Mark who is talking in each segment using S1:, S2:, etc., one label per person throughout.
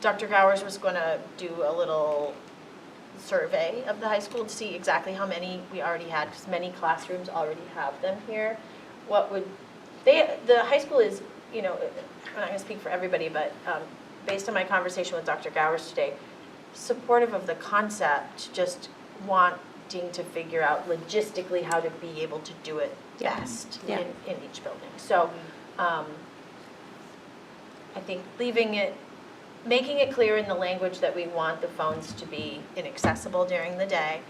S1: Dr. Gowers was going to do a little survey of the high school to see exactly how many we already had, because many classrooms already have them here. What would, they, the high school is, you know, I'm not going to speak for everybody, but um, based on my conversation with Dr. Gowers today, supportive of the concept, just wanting to figure out logistically how to be able to do it
S2: Yeah.
S1: best
S2: Yeah.
S1: in, in each building. So, um, I think leaving it, making it clear in the language that we want the phones to be inaccessible during the day,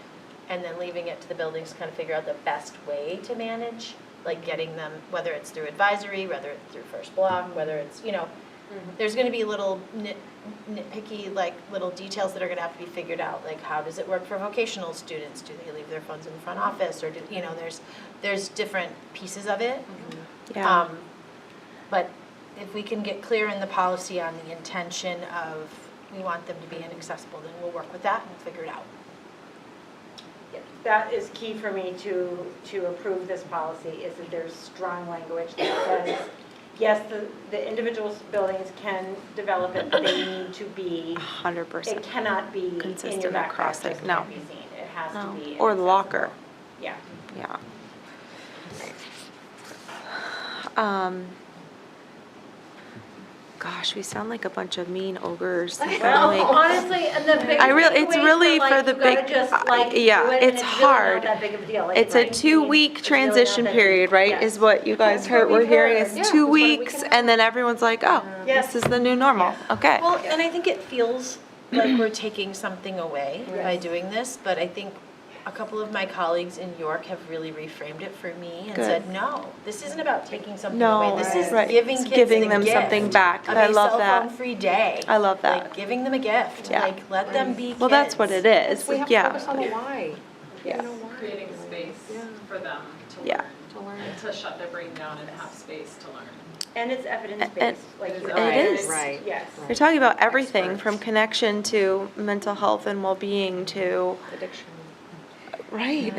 S1: and then leaving it to the buildings to kind of figure out the best way to manage, like getting them, whether it's through advisory, whether it's through first block, whether it's, you know, there's gonna be little nit, nitpicky, like, little details that are gonna have to be figured out, like, how does it work for vocational students? Do they leave their phones in the front office, or do, you know, there's, there's different pieces of it.
S2: Yeah,
S1: Um, But if we can get clear in the policy on the intention of, we want them to be inaccessible, then we'll work with that and figure it out.
S3: That is key for me to, to approve this policy, is that there's strong language that says, yes, the, the individual buildings can develop it, but they need to be,
S2: hundred
S3: it
S2: percent.
S3: cannot be in your
S2: Consistent
S3: backpack,
S2: across
S3: just
S2: it, no.
S3: can't be seen. It has to
S2: No.
S3: be.
S2: Or the locker.
S3: accessible. Yeah.
S2: Yeah. Um, gosh, we sound like a bunch of mean ogres. We sound
S3: Well,
S2: like-
S3: honestly, and the big
S2: I real- it's
S3: takeaway is that,
S2: really
S3: like,
S2: for the
S3: you gotta
S2: big-
S3: just,
S2: I-
S3: like, do
S2: yeah,
S3: it and
S2: it's
S3: really not
S2: hard.
S3: that big of a deal. Like,
S2: It's a
S3: like,
S2: two-week
S3: it's really not
S2: transition
S3: that-
S2: period, right, is
S3: Yes.
S2: what you guys
S3: That's
S2: heard,
S3: what
S2: we're
S3: we've heard.
S2: heard,
S3: Yeah,
S2: it's two
S3: that's what we
S2: weeks,
S3: can
S2: and then everyone's like, oh,
S3: Yes.
S2: this is the new normal, okay.
S1: Well, and I think it feels like we're taking something away by doing this, but I think a couple of my colleagues in York have really reframed it for me and
S2: Good.
S1: said, no, this isn't about taking something
S2: No,
S1: away. This is
S2: right.
S1: giving
S2: It's
S1: kids the
S2: giving them
S1: gift
S2: something back.
S1: of
S2: I
S1: a
S2: love
S1: cell
S2: that.
S1: phone free day.
S2: I love that.
S1: Like giving them a gift,
S2: Yeah.
S1: like let them be
S2: Well, that's what it
S1: kids.
S2: is,
S4: We have to focus on the
S2: yeah,
S4: why.
S2: Yeah.
S4: You know why.
S5: creating space
S4: Yeah.
S5: for them to
S2: Yeah.
S5: learn,
S4: To learn.
S5: and to shut their brain down and have space to learn.
S3: And it's
S2: And-
S3: evidence-based, like.
S5: It
S3: you-
S2: It is.
S4: Right.
S3: Yes.
S2: we're talking about everything, from connection to mental health and well-being to,
S4: Addiction.
S2: right,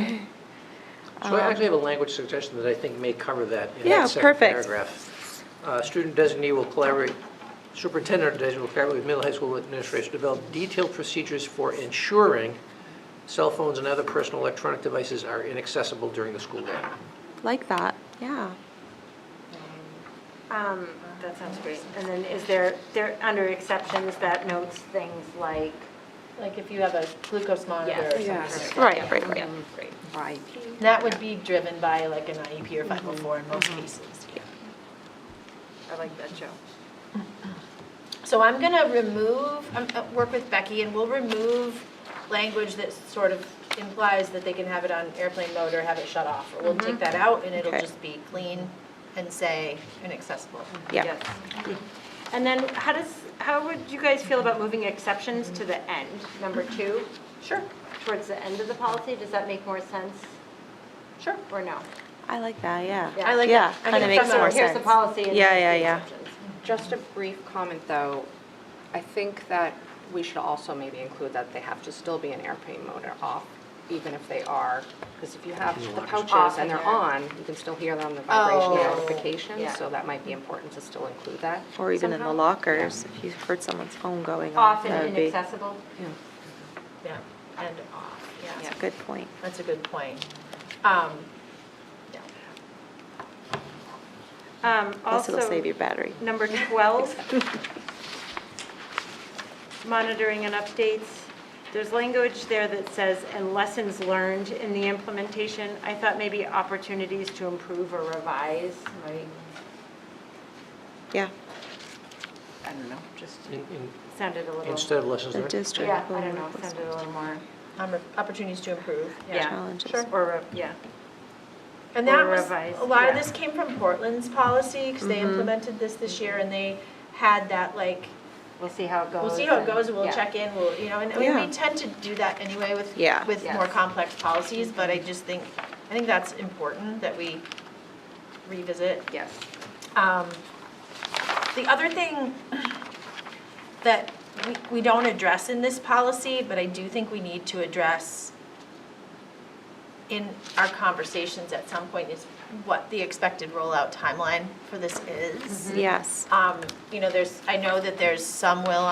S6: So I actually have a language suggestion that I think may cover that in
S2: Um, Yeah,
S6: that second
S2: perfect.
S6: paragraph. Uh, Student designee will collaborate, superintendent or designee will collaborate with middle high school administrators to develop detailed procedures for ensuring cell phones and other personal electronic devices are inaccessible during the school day.
S2: like that, yeah.
S3: Um, that sounds great. And then is there, there, under exceptions, that notes things like,
S1: Like if you have a glucose monitor or
S4: Yeah.
S1: something.
S2: Right, right, right.
S3: Mm-hmm.
S4: Right.
S1: That would be driven by like an IEP or 504 in most cases.
S3: I like that, Joe.
S1: So I'm going to remove, um, uh, work with Becky, and we'll remove language that sort of implies that they can have it on airplane mode or have it shut off. We'll take that out, and it'll
S2: Okay.
S1: just be clean and say inaccessible.
S2: Yeah,
S3: Yes. And then how does, how would you guys feel about moving exceptions to the end, number two? Sure. Towards the end of the policy, does that make more sense? Sure. Or no?
S2: I like that, yeah.
S3: Yeah.
S1: I like
S2: Yeah,
S1: that. I
S2: kind of
S1: think
S2: makes
S1: that's
S2: more
S1: our-
S2: sense.
S3: Here's the policy and
S2: Yeah,
S3: here's
S2: yeah,
S3: the
S2: yeah.
S3: exceptions.
S4: Just a brief comment, though. I think that we should also maybe include that they have to still be in airplane mode or off, even if they are, because if you have the pouches and they're on, you can still hear them, the vibration
S1: Oh.
S4: notification,
S3: Yeah.
S4: so that might be important to still include that.
S2: Or even in the
S4: somehow.
S2: lockers, if you heard someone's phone going off,
S3: Off
S2: that
S3: and
S2: would be, it's
S3: inaccessible?
S1: Yeah, and off, yeah.
S2: a good point.
S1: That's a good point. Um, yeah.
S3: Um,
S2: Plus it'll
S3: also-
S2: save your battery.
S3: Number 12, monitoring and updates. There's language there that says, and lessons learned in the implementation. I thought maybe opportunities to improve or revise, might
S2: Yeah,
S4: I don't know, just.
S6: In- in-
S3: sounded a little.
S6: Instead of lessons
S2: the
S6: learned.
S2: district.
S3: Yeah,
S2: will
S3: I don't know,
S2: work with
S3: sounded a little more,
S1: Um, Opportunities to improve,
S3: yeah.
S2: Challenges.
S1: Sure.
S3: or, re- yeah.
S1: And
S3: Or
S1: that was,
S3: revised,
S1: a lot of
S3: yeah. Mm-hmm.
S1: this came from Portland's policy, because they implemented this this year, and they had that, like,
S3: We'll see how it goes.
S1: we'll see how it
S3: and-
S1: goes, we'll
S3: yeah.
S1: check in, we'll, you know, and I mean,
S2: Yeah.
S1: we tend to do that anyway with,
S2: Yeah.
S1: with more
S3: Yes.
S1: complex policies, but I just think, I think that's important that we revisit.
S3: Yes.
S1: Um, The other thing that we, we don't address in this policy, but I do think we need to address in our conversations at some point is what the expected rollout timeline for this is.
S2: Yes.
S1: Um, You know, there's, I know that there's some will on